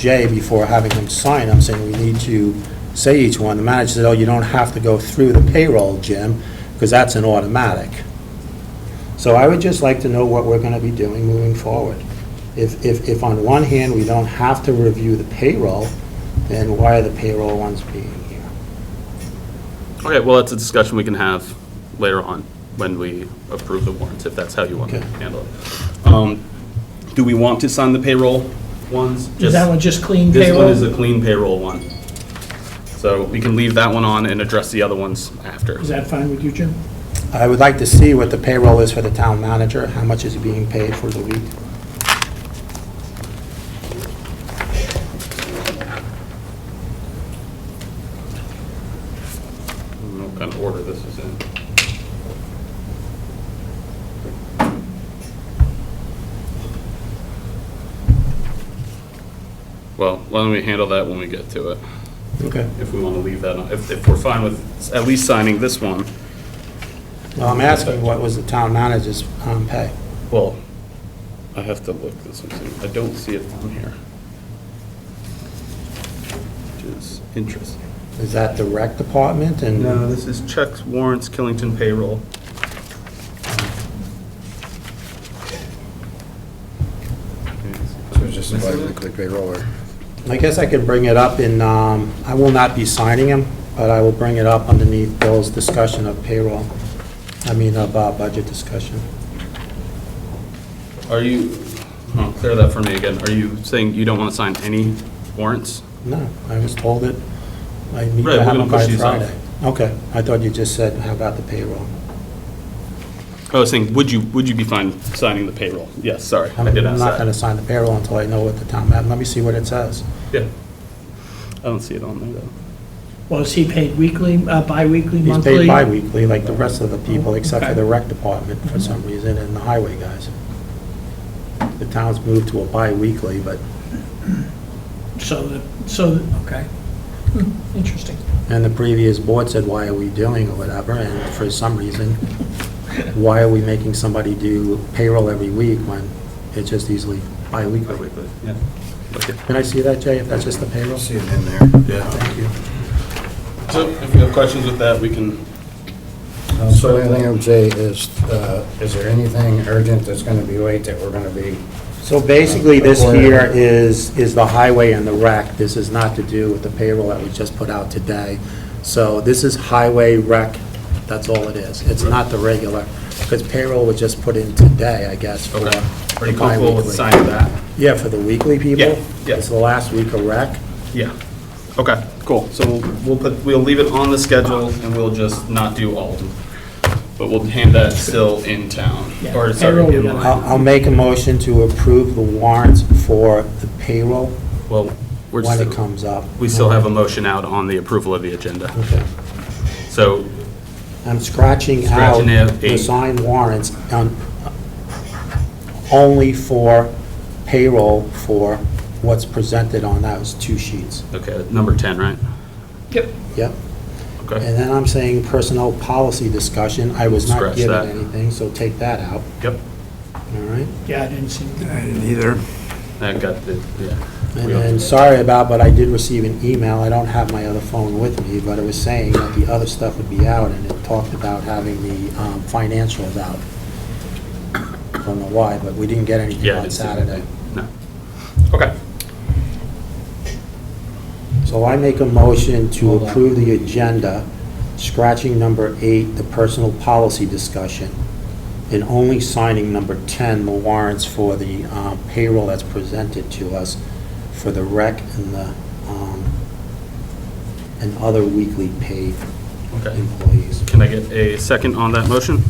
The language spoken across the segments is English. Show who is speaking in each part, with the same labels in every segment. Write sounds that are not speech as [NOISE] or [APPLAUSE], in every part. Speaker 1: Jay before having him sign them, saying we need to say each one. The manager said, oh, you don't have to go through the payroll, Jim, because that's an automatic. So I would just like to know what we're going to be doing moving forward. If, if, if on one hand, we don't have to review the payroll, then why are the payroll ones being here?
Speaker 2: Okay, well, that's a discussion we can have later on when we approve the warrants, if that's how you want to
Speaker 1: Okay.
Speaker 2: handle it. Um, Do we want to sign the payroll ones?
Speaker 3: Is that one just clean
Speaker 2: This one
Speaker 3: payroll?
Speaker 2: is a clean payroll one. So we can leave that one on and address the other ones after.
Speaker 3: Is that fine with you, Jim?
Speaker 1: I would like to see what the payroll is for the town manager, how much is being paid for the week.
Speaker 2: I don't know what kind of order this is in. Well, why don't we handle that when we get to it?
Speaker 1: Okay.
Speaker 2: if we want to leave that on, if, if we're fine with at least signing this one.
Speaker 1: Well, I'm asking, what was the town manager's um, pay?
Speaker 2: Well, I have to look this one, too. I don't see it on here. Which is interesting.
Speaker 1: Is that the rec department and?
Speaker 2: No, this is checks, warrants, Killington payroll.
Speaker 4: So it's just a bi-weekly payroll or?
Speaker 1: I guess I could bring it up in, um, I will not be signing them, but I will bring it up underneath Bill's discussion of payroll, I mean, of uh, budget discussion.
Speaker 2: Are you, oh, clear that for me again. Are you saying you don't want to sign any warrants?
Speaker 1: No, I was told it, I need
Speaker 2: Right,
Speaker 1: to
Speaker 2: we're
Speaker 1: have
Speaker 2: gonna
Speaker 1: them by
Speaker 2: push these off.
Speaker 1: Friday. Okay, I thought you just said, how about the payroll?
Speaker 2: I was saying, would you, would you be fine signing the payroll? Yes, sorry,
Speaker 1: I'm
Speaker 2: I did ask
Speaker 1: not
Speaker 2: that.
Speaker 1: gonna sign the payroll until I know what the town, let me see what it says.
Speaker 2: Yeah. I don't see it on there, though.
Speaker 3: Well, is he paid weekly, uh, bi-weekly,
Speaker 1: He's
Speaker 3: monthly?
Speaker 1: paid bi-weekly, like the rest of the people, except for
Speaker 3: Okay.
Speaker 1: the rec department for some reason, and the highway guys. The town's moved to a bi-weekly, but,
Speaker 3: So, the- so, okay. Hmm, Interesting.
Speaker 1: and the previous board said, why are we doing or whatever, and for some reason, why are we making somebody do payroll every week when it's just easily bi-weekly?
Speaker 2: Bi-weekly, yeah. Okay.
Speaker 1: Can I see that, Jay, if that's just the payroll?
Speaker 4: See it in there.
Speaker 2: Yeah.
Speaker 1: Thank you.
Speaker 2: So if you have questions with that, we can,
Speaker 4: Um, So the only thing I would say is, uh, is there anything urgent that's going to be late that we're going to be?
Speaker 1: So basically, this here is, is the highway and the rec. This is not to do with the payroll that we just put out today. So this is highway rec, that's all it is. It's not the regular, because payroll was just put in today, I guess, for
Speaker 2: okay. Are
Speaker 1: the
Speaker 2: you comfortable with
Speaker 1: bi-weekly.
Speaker 2: signing that?
Speaker 1: Yeah, for the weekly people?
Speaker 2: Yeah, yeah.
Speaker 1: It's the last week of rec.
Speaker 2: Yeah. Okay, cool. So we'll- we'll put, we'll leave it on the schedule and we'll just not do all of them. But we'll hand that still in town,
Speaker 3: Yeah.
Speaker 2: or sorry,
Speaker 3: Payroll,
Speaker 2: in
Speaker 3: yeah.
Speaker 2: line.
Speaker 1: I'll, I'll make a motion to approve the warrants for the payroll
Speaker 2: Well, we're
Speaker 1: when it
Speaker 2: just,
Speaker 1: comes up.
Speaker 2: we still have a motion out on the approval of the agenda.
Speaker 1: Okay.
Speaker 2: So,
Speaker 1: I'm scratching out
Speaker 2: Scratching out
Speaker 1: the
Speaker 2: eight.
Speaker 1: signed warrants on, only for payroll for what's presented on those two sheets.
Speaker 2: okay, number 10, right?
Speaker 3: Yep.
Speaker 1: Yep.
Speaker 2: Okay,
Speaker 1: And then I'm saying personnel policy discussion, I was not
Speaker 2: Scratch
Speaker 1: given
Speaker 2: that.
Speaker 1: anything, so take that out,
Speaker 2: yep.
Speaker 1: all right?
Speaker 3: Yeah, I didn't see that.
Speaker 2: I got the, yeah.
Speaker 1: And
Speaker 2: We don't-
Speaker 1: then, sorry about, but I did receive an email, I don't have my other phone with me, but it was saying that the other stuff would be out, and it talked about having the um, financials out. [COUGHS] Don't know why, but we didn't get anything
Speaker 2: Yeah, I
Speaker 1: on
Speaker 2: didn't see that.
Speaker 1: Saturday.
Speaker 2: No. Okay.
Speaker 1: So I make a motion to approve the agenda, scratching number eight, the personal policy discussion, and only signing number 10, the warrants for the um, payroll that's presented to us for the rec and the, um, and other weekly paid
Speaker 2: Okay.
Speaker 1: employees.
Speaker 2: Can I get a second on that motion?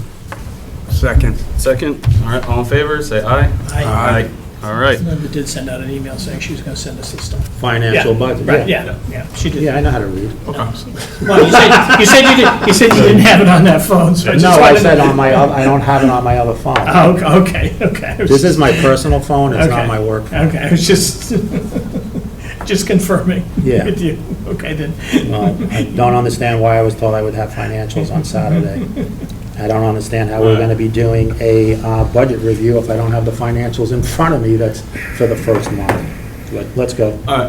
Speaker 5: Second.
Speaker 2: Second? All right, all in favor, say aye.
Speaker 3: I,
Speaker 2: All right.
Speaker 3: Linda did send out an email saying she was gonna send us this stuff.
Speaker 1: Financial
Speaker 3: Yeah,
Speaker 1: budget.
Speaker 3: Right, yeah, yeah, she did.
Speaker 1: Yeah, I know how to read.
Speaker 3: No. Well, you said, you said you did, you said you didn't have it on that phone, so I just
Speaker 1: No, I
Speaker 3: wanted to-
Speaker 1: said on my, oth- I don't have it on my other phone.
Speaker 3: Oh, okay, okay, okay.
Speaker 1: This is my personal phone, it's
Speaker 3: Okay.
Speaker 1: not my work phone.
Speaker 3: Okay, I was just, [LAUGHS] just confirming
Speaker 1: Yeah.
Speaker 3: with you. Okay, then.
Speaker 1: Well, I Uh, don't understand why I was told I would have financials on Saturday. I don't understand how we're gonna be doing a uh, budget review if I don't have the financials in front of me that's for the first month.
Speaker 6: Good, let's go.
Speaker 2: Uh,
Speaker 1: All right,